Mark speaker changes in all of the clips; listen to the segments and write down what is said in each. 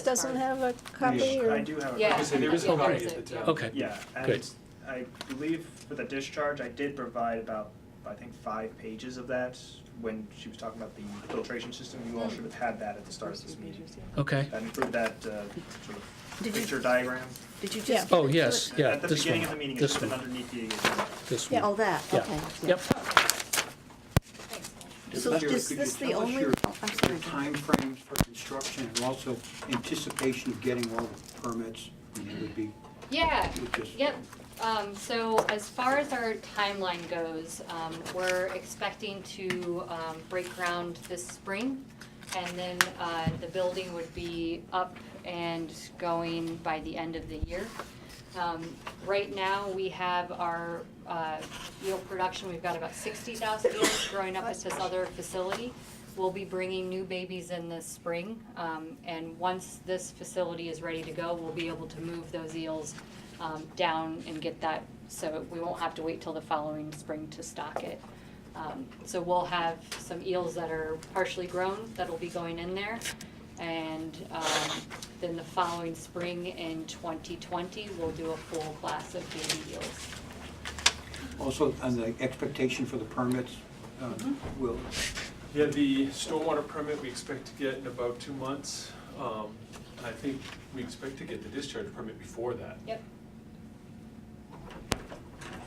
Speaker 1: doesn't have a copy
Speaker 2: I
Speaker 1: or?
Speaker 2: do have a.
Speaker 3: Yeah.
Speaker 2: copy.
Speaker 4: So there is a
Speaker 3: Yeah,
Speaker 4: copy
Speaker 3: there's
Speaker 4: at
Speaker 3: a-
Speaker 4: the
Speaker 3: yeah.
Speaker 4: town.
Speaker 5: Okay,
Speaker 2: Yeah,
Speaker 5: Good.
Speaker 2: and I believe for the discharge, I did provide about, I think, five pages of that when she was talking about the filtration system. You
Speaker 6: Hmm.
Speaker 2: all should have had that at the start of this meeting.
Speaker 5: okay.
Speaker 2: That included that uh, sort of
Speaker 6: Did you-
Speaker 2: picture diagram.
Speaker 6: Did you
Speaker 1: Yeah.
Speaker 6: just?
Speaker 5: Oh, yes, yeah,
Speaker 2: At the
Speaker 5: this
Speaker 2: beginning of the
Speaker 5: one,
Speaker 2: meeting, it's
Speaker 5: this
Speaker 2: just
Speaker 5: one,
Speaker 2: underneath the agenda.
Speaker 5: this
Speaker 6: Yeah, all
Speaker 5: one.
Speaker 6: that,
Speaker 5: Yeah.
Speaker 6: okay. yeah.
Speaker 5: Yep,
Speaker 6: So
Speaker 4: Mr. Chair,
Speaker 6: is
Speaker 4: could you
Speaker 6: this the
Speaker 4: tell us
Speaker 6: only-
Speaker 4: your-
Speaker 6: oh, I'm sorry,
Speaker 4: Your
Speaker 6: go ahead.
Speaker 4: timeframes for construction and also anticipation of getting all the permits, I mean, it would be,
Speaker 3: Yeah,
Speaker 4: it would just.
Speaker 3: Yep, um, so as far as our timeline goes, um, we're expecting to, um, break ground this spring. And then, uh, the building would be up and going by the end of the year. Um, right now, we have our, uh, yield production, we've got about sixty thousand yields growing up at this other facility. We'll be bringing new babies in the spring, um, and once this facility is ready to go, we'll be able to move those eels um, down and get that, so we won't have to wait till the following spring to stock it. Um, so we'll have some eels that are partially grown that'll be going in there. And, um, then the following spring in twenty twenty, we'll do a full class of baby eels.
Speaker 4: Also, on the expectation for the permits, um,
Speaker 6: Mm-hmm.
Speaker 4: will,
Speaker 7: Yeah, the stormwater permit we expect to get in about two months. Um, I think we expect to get the discharge permit before that.
Speaker 3: Yep.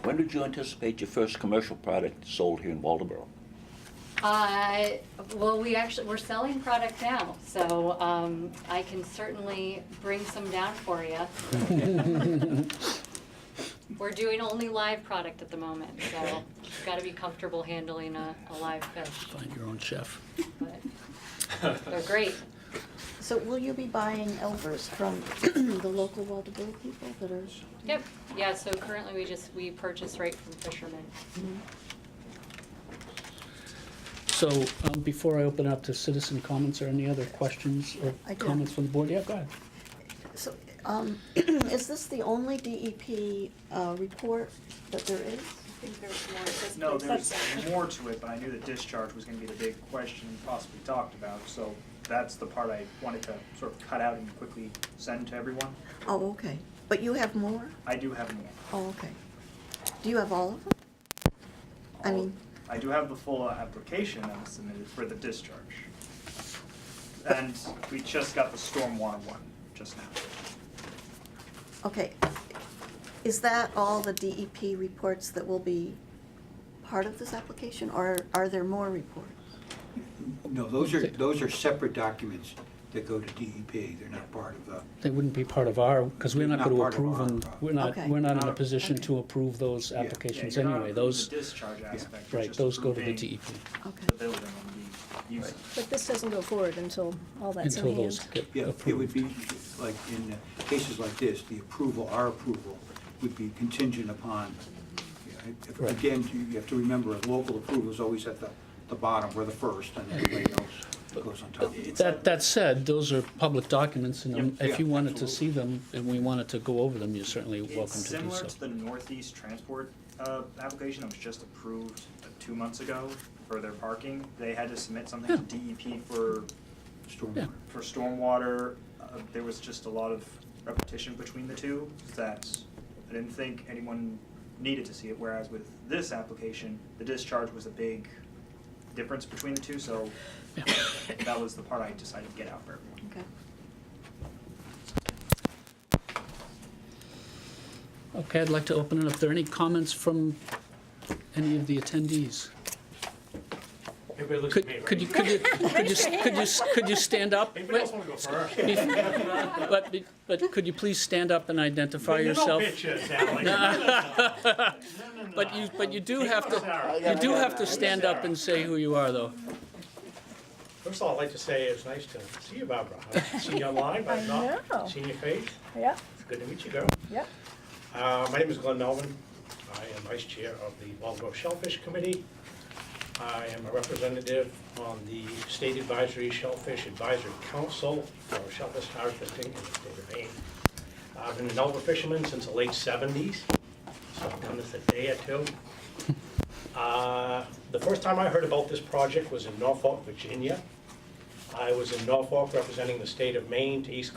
Speaker 8: When did you anticipate your first commercial product sold here in Waldeboro?
Speaker 3: Uh, well, we actually, we're selling product now, so, um, I can certainly bring some down for you. We're doing only live product at the moment, so you've gotta be comfortable handling a, a live fish,
Speaker 5: find your own chef.
Speaker 3: but they're great.
Speaker 6: So will you be buying Elvers from the local Waldeboro people that are?
Speaker 3: Yep, yeah, so currently we just, we purchase right from fishermen.
Speaker 5: So um, before I open up to citizen comments, or any other questions
Speaker 6: I
Speaker 5: or
Speaker 6: do.
Speaker 5: comments from the board? Yeah, go ahead.
Speaker 6: So, um, is this the only DEP, uh, report that there is?
Speaker 2: No, there was more to it, but I knew the discharge was gonna be the big question possibly talked about, so that's the part I wanted to sort of cut out and quickly send to everyone.
Speaker 6: Oh, okay. But you have more?
Speaker 2: I do have more.
Speaker 6: Oh, okay. Do you have all of them? I mean-
Speaker 2: I do have the full application that was submitted for the discharge. And we just got the stormwater one just now.
Speaker 6: Okay. Is that all the DEP reports that will be part of this application, or are there more reports?
Speaker 4: no, those are, those are separate documents that go to DEP, they're not part of the,
Speaker 5: They wouldn't be part of our, because we're not
Speaker 4: Not
Speaker 5: going to
Speaker 4: part of
Speaker 5: approve
Speaker 4: our-
Speaker 5: them, we're not,
Speaker 6: Okay.
Speaker 5: we're not in a
Speaker 2: Not-
Speaker 5: position
Speaker 6: okay.
Speaker 5: to approve those
Speaker 4: Yeah. Yeah,
Speaker 5: applications
Speaker 2: Yeah, you're not
Speaker 5: anyway.
Speaker 2: approving
Speaker 5: Those,
Speaker 2: The discharge aspect, you're
Speaker 5: right,
Speaker 2: just
Speaker 5: those go to the E
Speaker 2: approving
Speaker 5: DEP
Speaker 2: The
Speaker 6: Okay.
Speaker 2: building and the use.
Speaker 1: But this doesn't go forward until all that's in
Speaker 5: until
Speaker 1: hand.
Speaker 5: those get
Speaker 4: yeah,
Speaker 5: approved.
Speaker 4: it would be, like, in cases like this, the approval, our approval, would be contingent upon, yeah, if-
Speaker 5: Right.
Speaker 4: again, you you have to remember, local approval is always at the, the bottom, we're the first, and everybody else goes on top.
Speaker 5: That, that said, those are public documents, and
Speaker 2: Yep.
Speaker 5: if you
Speaker 4: Yeah,
Speaker 5: wanted to
Speaker 4: absolutely.
Speaker 5: see them, and we wanted to go over them, you're certainly welcome
Speaker 2: It's
Speaker 5: to do
Speaker 2: similar
Speaker 5: so.
Speaker 2: to the Northeast Transport uh, application that was just approved uh, two months ago for their parking. They had to submit something to DEP for,
Speaker 4: Stormwater.
Speaker 2: for stormwater. Uh, There was just a lot of repetition between the two that I didn't think anyone needed to see it, whereas with this application, the discharge was a big difference between the two, so that was the part I decided to get out for everyone.
Speaker 6: Okay.
Speaker 5: Okay, I'd like to open it up. Are there any comments from any of the attendees?
Speaker 7: Everybody looks
Speaker 5: Could, could you, could you, could you, could you, could you stand up?
Speaker 7: Anybody else wanna go first?
Speaker 5: But, but could you please stand up and identify yourself? But you, but you do have to, you do have to stand up and say who you are, though.
Speaker 9: First of all, I'd like to say it's nice to see you, Barbara. I haven't seen you online, but I've
Speaker 1: know.
Speaker 9: not seen your face.
Speaker 1: Yeah,
Speaker 9: It's good to meet you, girl.
Speaker 1: yeah.
Speaker 9: Uh, My name is Glenn Melvin. I am Vice Chair of the Waldeboro Shellfish Committee. I am a representative on the State Advisory Shellfish Advisory Council for shellfish harvesting in the state of Maine. I've been an elder fisherman since the late 70s, so I've done this a day or two. Uh, The first time I heard about this project was in Norfolk, Virginia. I was in Norfolk representing the state of Maine to East